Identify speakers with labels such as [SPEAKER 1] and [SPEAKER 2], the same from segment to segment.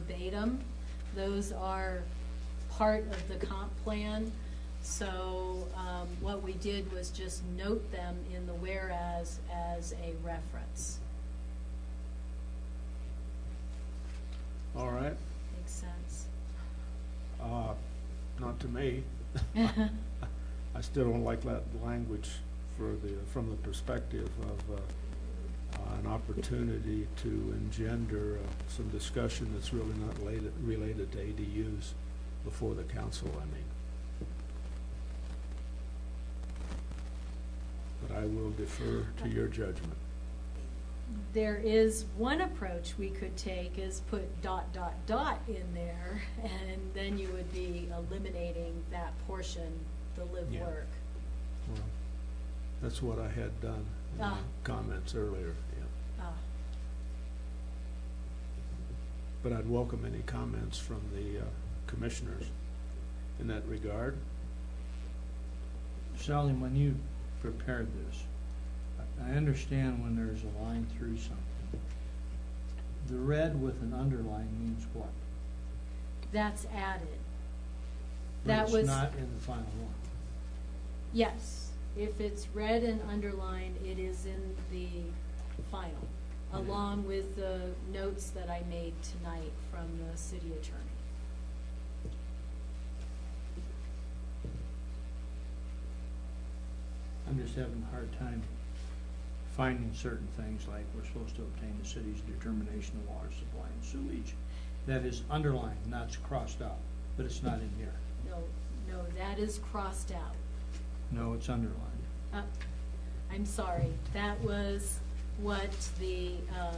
[SPEAKER 1] verbatim. Those are part of the comp plan. So, um, what we did was just note them in the whereas as a reference.
[SPEAKER 2] All right,
[SPEAKER 1] Makes sense?
[SPEAKER 2] uh, not to me. I still don't like that language for the, from the perspective of, uh, uh, an opportunity to engender uh, some discussion that's really not related, related to ADUs before the council, I mean. But I will defer to your judgment.
[SPEAKER 1] There is one approach we could take is put dot, dot, dot in there, and then you would be eliminating that portion, the live
[SPEAKER 2] Yeah.
[SPEAKER 1] work.
[SPEAKER 2] Well, That's what I had done in my
[SPEAKER 1] Ah.
[SPEAKER 2] comments earlier, yeah.
[SPEAKER 1] Ah,
[SPEAKER 2] But I'd welcome any comments from the uh, commissioners in that regard.
[SPEAKER 3] Sally, when you prepared this, I- I understand when there's a line through something. The red with an underline means what?
[SPEAKER 1] That's added.
[SPEAKER 3] But
[SPEAKER 1] That was.
[SPEAKER 3] It's not in the final one.
[SPEAKER 1] Yes, if it's red and underlined, it is in the final, along with the notes that I made tonight from the city attorney.
[SPEAKER 3] I'm just having a hard time finding certain things, like we're supposed to obtain the city's determination of water supply and sewage. That is underlined, not crossed out, but it's not in here.
[SPEAKER 1] No, no, that is crossed out.
[SPEAKER 3] No, it's underlined.
[SPEAKER 1] Uh, I'm sorry, that was what the, um,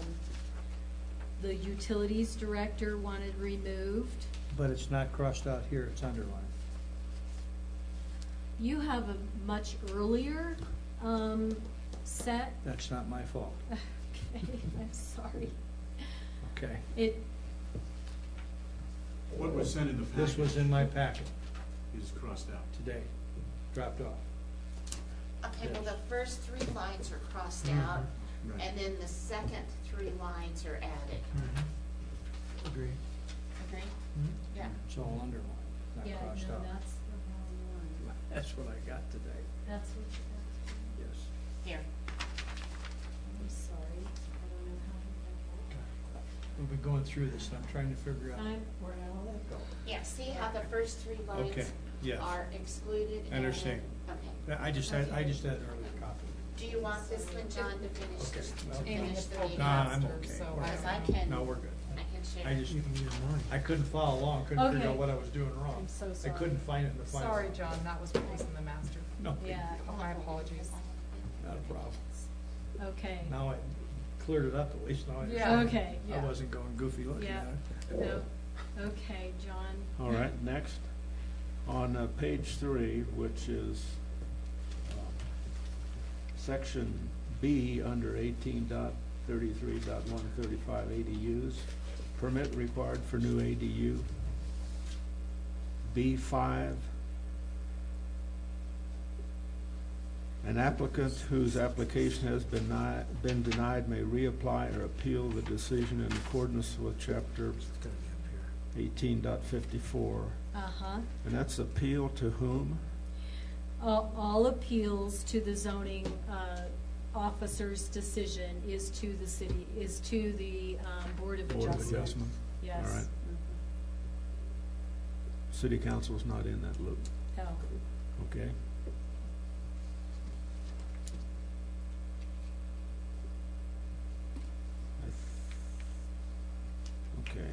[SPEAKER 1] the utilities director wanted removed.
[SPEAKER 3] But it's not crossed out here, it's underlined.
[SPEAKER 1] You have a much earlier, um, set.
[SPEAKER 3] That's not my fault,
[SPEAKER 1] Okay, I'm sorry.
[SPEAKER 3] okay?
[SPEAKER 1] It,
[SPEAKER 4] What was sent in the packet
[SPEAKER 3] This was in my packet
[SPEAKER 4] is crossed out.
[SPEAKER 3] today, dropped off.
[SPEAKER 5] Okay, well, the first three lines are crossed
[SPEAKER 3] Mhm.
[SPEAKER 5] out,
[SPEAKER 4] Right.
[SPEAKER 5] and then the second three lines are added.
[SPEAKER 3] Mm-hmm.
[SPEAKER 6] Mm-hmm.
[SPEAKER 3] Agree.
[SPEAKER 5] Agree? Yeah.
[SPEAKER 3] It's all underlined, not
[SPEAKER 1] yeah, no, that's
[SPEAKER 3] crossed
[SPEAKER 1] the
[SPEAKER 3] out.
[SPEAKER 1] wrong
[SPEAKER 3] Mm-hmm.
[SPEAKER 1] one.
[SPEAKER 3] That's what I got today,
[SPEAKER 1] That's what you got.
[SPEAKER 3] yes.
[SPEAKER 5] Here.
[SPEAKER 1] I'm sorry, I don't know how
[SPEAKER 3] We'll be going through this, I'm trying to figure
[SPEAKER 1] to.
[SPEAKER 3] out.
[SPEAKER 1] I'm, where all that go.
[SPEAKER 5] Yeah, see how the first three
[SPEAKER 3] Okay,
[SPEAKER 5] lines
[SPEAKER 3] yes.
[SPEAKER 5] are excluded?
[SPEAKER 3] I understand.
[SPEAKER 5] and- Okay.
[SPEAKER 3] I I just had, I just had an earlier copy.
[SPEAKER 5] Do you want this one, John, to finish,
[SPEAKER 3] Okay,
[SPEAKER 5] this-
[SPEAKER 3] well-
[SPEAKER 5] to finish the
[SPEAKER 6] Nah,
[SPEAKER 5] meeting?
[SPEAKER 3] Nah, I'm
[SPEAKER 6] Faster,
[SPEAKER 3] okay.
[SPEAKER 6] so
[SPEAKER 3] We're
[SPEAKER 5] Because I
[SPEAKER 3] fine.
[SPEAKER 5] can,
[SPEAKER 3] No, we're good.
[SPEAKER 5] I can share.
[SPEAKER 3] I just, I couldn't follow along, couldn't figure out
[SPEAKER 1] Okay.
[SPEAKER 3] what I was doing wrong.
[SPEAKER 6] I'm so
[SPEAKER 3] I
[SPEAKER 6] sorry.
[SPEAKER 3] couldn't find it in the final.
[SPEAKER 6] Sorry, John, that was what was in the master.
[SPEAKER 3] No, big
[SPEAKER 1] Yeah.
[SPEAKER 3] deal.
[SPEAKER 6] Oh, My apologies.
[SPEAKER 3] not a problem.
[SPEAKER 1] Okay,
[SPEAKER 3] Now I cleared it up at least, now I
[SPEAKER 6] Yeah.
[SPEAKER 3] understand.
[SPEAKER 1] okay,
[SPEAKER 3] I
[SPEAKER 1] yeah,
[SPEAKER 3] wasn't going goofy looking
[SPEAKER 1] Yeah.
[SPEAKER 3] at it.
[SPEAKER 1] no, okay, John,
[SPEAKER 2] All right, next. On uh, page three, which is uh, section B under eighteen dot thirty-three dot one thirty-five ADUs, permit required for new ADU. B five. An applicant whose application has been ni- been denied may reapply or appeal the decision in accordance with chapter
[SPEAKER 3] It's gonna be up here.
[SPEAKER 2] eighteen
[SPEAKER 1] uh-huh.
[SPEAKER 2] and that's appeal to whom?
[SPEAKER 1] All, all appeals to the zoning, uh, officer's decision is to the city, is to the, um, Board of
[SPEAKER 2] Board of
[SPEAKER 1] Adjustment,
[SPEAKER 2] Adjustment.
[SPEAKER 1] yes.
[SPEAKER 2] All right. City council's not in that loop,
[SPEAKER 1] No.
[SPEAKER 2] okay? I th- Okay.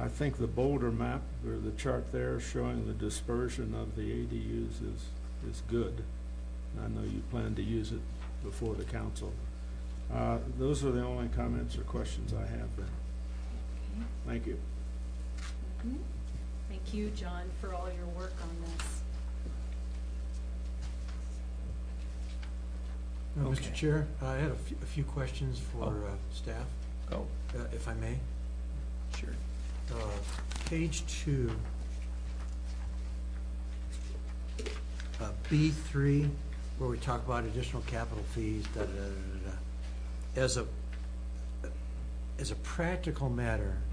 [SPEAKER 2] I think the Boulder map, or the chart there showing the dispersion of the ADUs is, is good. I know you plan to use it before the council. Uh, Those are the only comments or questions I have then.
[SPEAKER 1] Okay.
[SPEAKER 2] Thank you.
[SPEAKER 1] Mhm. Thank you, John, for all your work on this.
[SPEAKER 7] Uh,
[SPEAKER 3] Okay.
[SPEAKER 7] Mr. Chair, I had a few, a few questions for
[SPEAKER 3] Oh.
[SPEAKER 7] uh, staff,
[SPEAKER 3] Go.
[SPEAKER 7] uh, if I may.
[SPEAKER 3] Sure.
[SPEAKER 7] Uh, Page two. Uh, B three, where we talk about additional capital fees, da, da, da, da, da. As a, as a practical matter,